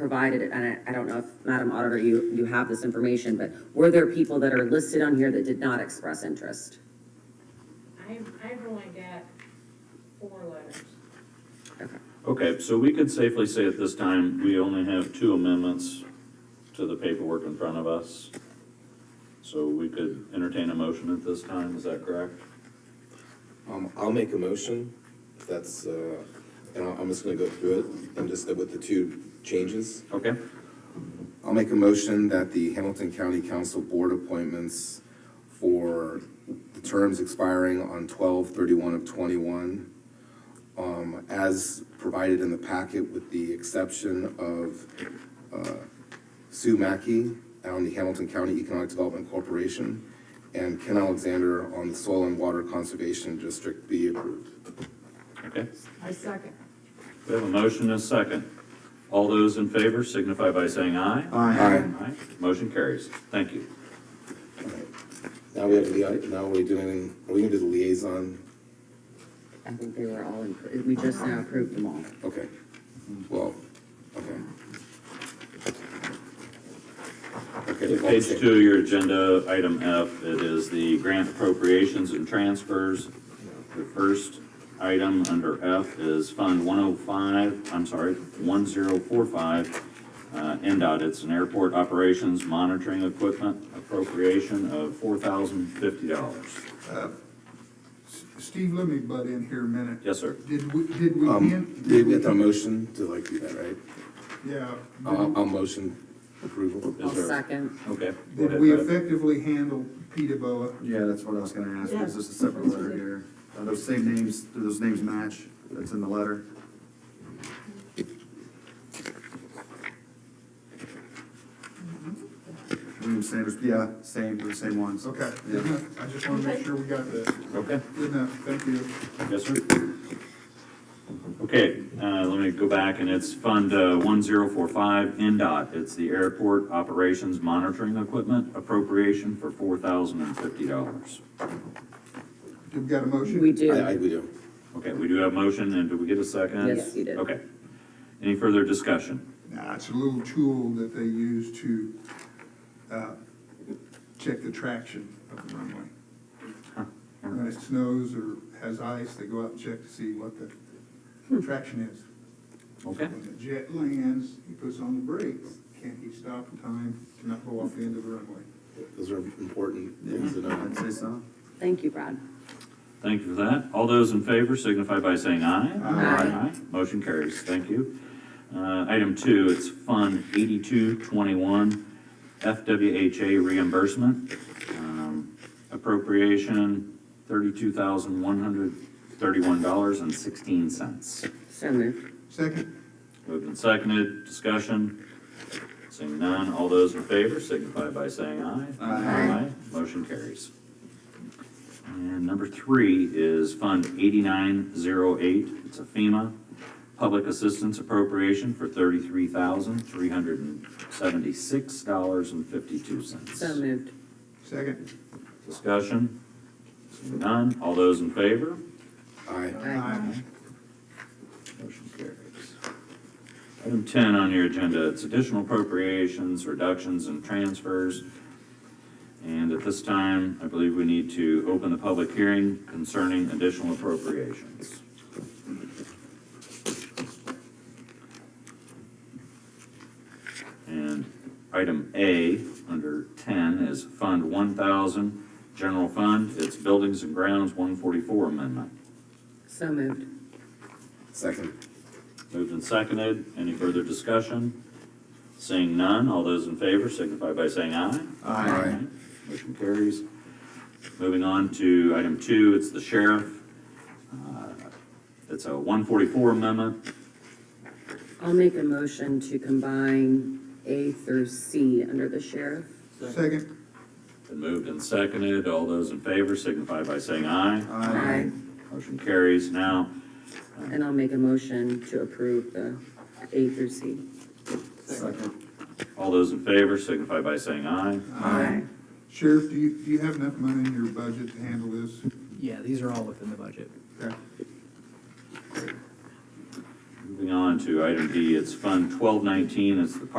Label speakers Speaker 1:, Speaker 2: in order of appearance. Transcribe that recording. Speaker 1: provided, and I, I don't know if, Madam Auditor, you, you have this information, but were there people that are listed on here that did not express interest?
Speaker 2: I, I've only got four letters.
Speaker 3: Okay, so we could safely say at this time, we only have two amendments to the paperwork in front of us. So we could entertain a motion at this time, is that correct?
Speaker 4: Um, I'll make a motion, if that's, uh, and I- I'm just gonna go through it, and just with the two changes.
Speaker 3: Okay,
Speaker 4: I'll make a motion that the Hamilton County Council Board appointments for the terms expiring on twelve thirty-one of twenty-one, um, as provided in the packet with the exception of, uh, Sue Mackey on the Hamilton County Economic Development Corporation and Ken Alexander on the Soil and Water Conservation District be approved.
Speaker 3: okay.
Speaker 2: I second.
Speaker 3: We have a motion and a second. All those in favor signify by saying aye.
Speaker 4: Aye.
Speaker 3: Aye. Motion carries. Thank you.
Speaker 4: Now we have the, now we're doing, are we gonna do the liaison?
Speaker 1: I think they were all, in- we just now approved them all.
Speaker 4: Okay, well, okay. Okay,
Speaker 3: Okay,
Speaker 4: well,
Speaker 3: Page
Speaker 4: okay.
Speaker 3: two of your agenda, item F, it is the grant appropriations and transfers. The first item under F is Fund 105, I'm sorry, 1045, uh, NDOT. It's an airport operations monitoring equipment appropriation of $4,050.
Speaker 5: Steve, let me butt in here a minute.
Speaker 3: Yes, sir.
Speaker 5: Did we, did we,
Speaker 4: Um,
Speaker 5: hand-
Speaker 4: did we get the motion to like do that, right? Uh,
Speaker 5: yeah,
Speaker 3: Uh,
Speaker 4: I'll, I'll motion approval.
Speaker 1: I'll
Speaker 3: Is there-
Speaker 1: second.
Speaker 3: Okay. go
Speaker 5: did
Speaker 3: ahead,
Speaker 5: we
Speaker 3: Brad.
Speaker 5: effectively handle Pete Boa?
Speaker 6: Yeah, that's what I was gonna ask, is this a separate letter here? Are those same names, do those names match that's in the letter? William Sanders, Mm-hmm. yeah, same, they're the same ones.
Speaker 5: Okay,
Speaker 6: Yeah.
Speaker 5: good enough. I just wanna make sure we got that.
Speaker 3: Okay.
Speaker 5: Good enough, thank you.
Speaker 3: Yes, sir. Okay, uh, let me go back, and it's Fund uh, 1045 NDOT. It's the Airport Operations Monitoring Equipment appropriation for $4,050.
Speaker 5: Did we got a motion?
Speaker 1: We
Speaker 4: I,
Speaker 1: do.
Speaker 4: I, we do.
Speaker 3: Okay, we do have motion, and do we get a second?
Speaker 1: Yes, you did.
Speaker 3: Okay. Any further discussion?
Speaker 5: Nah, it's a little tool that they use to, uh, check the traction of the runway. When it snows or has ice, they go out and check to see what the traction is.
Speaker 3: Okay,
Speaker 5: When the jet lands, he puts on the brakes, can he stop in time to not go off the end of the runway?
Speaker 4: Those are important things to know.
Speaker 6: I'd say so.
Speaker 1: Thank you, Brad.
Speaker 3: thank you for that. All those in favor signify by saying aye.
Speaker 1: Aye.
Speaker 3: Motion carries, thank you. Uh, Item two, it's Fund 8221 FWHA reimbursement, um, appropriation $32,131.16.
Speaker 1: So moved.
Speaker 5: Second,
Speaker 3: Moved and seconded, discussion, seeing none, all those in favor signify by saying aye.
Speaker 6: Aye.
Speaker 3: Motion carries. And number three is Fund 8908, it's a FEMA Public Assistance Appropriation for
Speaker 1: So
Speaker 3: $33,376.52.
Speaker 1: moved.
Speaker 5: second.
Speaker 3: Discussion, seeing none, all those in favor?
Speaker 4: Aye.
Speaker 5: Aye.
Speaker 3: Motion carries. Item ten on your agenda, it's additional appropriations, reductions, and transfers. And at this time, I believe we need to open the public hearing concerning additional appropriations. And item A, under ten, is Fund one thousand, General Fund, it's Buildings and Grounds, one forty-four amendment.
Speaker 1: So moved.
Speaker 4: Second.
Speaker 3: Moved and seconded. Any further discussion? Seeing none, all those in favor signify by saying aye.
Speaker 4: Aye.
Speaker 3: Motion carries. Moving on to item two, it's the sheriff. Uh, It's a 144 amendment.
Speaker 1: I'll make a motion to combine A through C under the sheriff.
Speaker 5: Second,
Speaker 3: Been moved and seconded. All those in favor signify by saying aye.
Speaker 1: Aye.
Speaker 3: Motion carries. Now,
Speaker 1: And I'll make a motion to approve the A through C.
Speaker 6: Second.
Speaker 3: all those in favor signify by saying aye.
Speaker 1: Aye.
Speaker 5: Sheriff, do you, do you have enough money in your budget to handle this?
Speaker 7: Yeah, these are all within the budget.
Speaker 5: Okay.
Speaker 3: Moving Moving on to item D, it's Fund twelve nineteen, it's the Park